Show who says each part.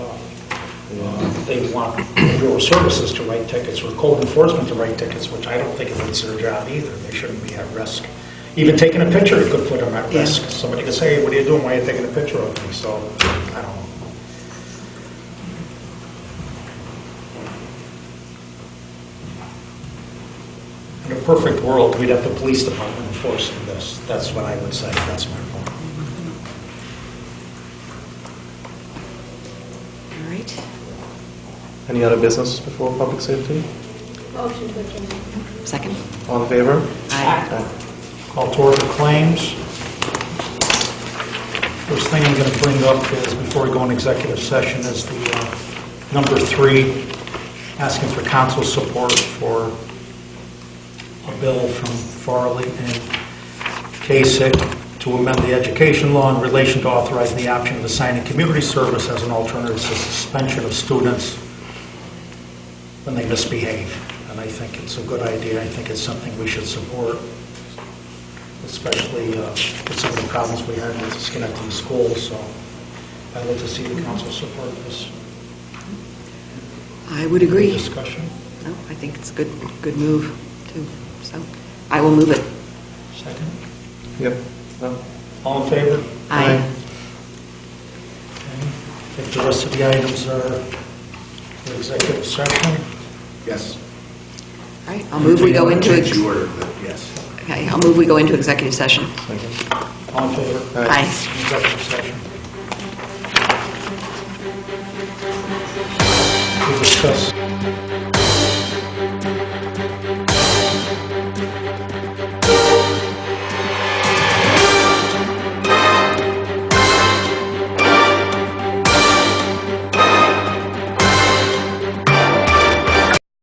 Speaker 1: they want your services to write tickets or code enforcement to write tickets, which I don't think is their job either. They shouldn't be at risk. Even taking a picture could put them at risk. Somebody could say, "Hey, what are you doing? Why are you taking a picture of me? So, I don't know. In a perfect world, we'd have the police department enforcing this. That's what I would say. That's my point.
Speaker 2: All right.
Speaker 3: Any other business before public safety?
Speaker 4: Motion to adjourn.
Speaker 2: Second?
Speaker 3: All in favor?
Speaker 2: Aye.
Speaker 1: Call to order claims. First thing I'm going to bring up is, before we go in executive session, is the uh, number three, asking for council support for a bill from Farley and Kasich to amend the education law in relation to authorizing the option of assigning community service as an alternative to suspension of students when they misbehave. And I think it's a good idea. I think it's something we should support especially uh, with some of the problems we had with Schenectady schools, so I'd like to see the council support this
Speaker 2: I would agree.
Speaker 1: discussion.
Speaker 2: No, I think it's a good, good move, too. So I will move it.
Speaker 1: Second.
Speaker 3: Yep. No?
Speaker 1: All in favor?
Speaker 2: Aye.
Speaker 1: Okay. I think the rest of the items are for executive session.
Speaker 5: Yes.
Speaker 2: All right, I'll move we go into,
Speaker 5: Change
Speaker 2: ex-
Speaker 5: the order, but yes.
Speaker 2: okay, I'll move we go into executive session.
Speaker 3: Second.
Speaker 1: All in favor?
Speaker 3: Aye.
Speaker 2: Aye.
Speaker 1: Executive session. We discuss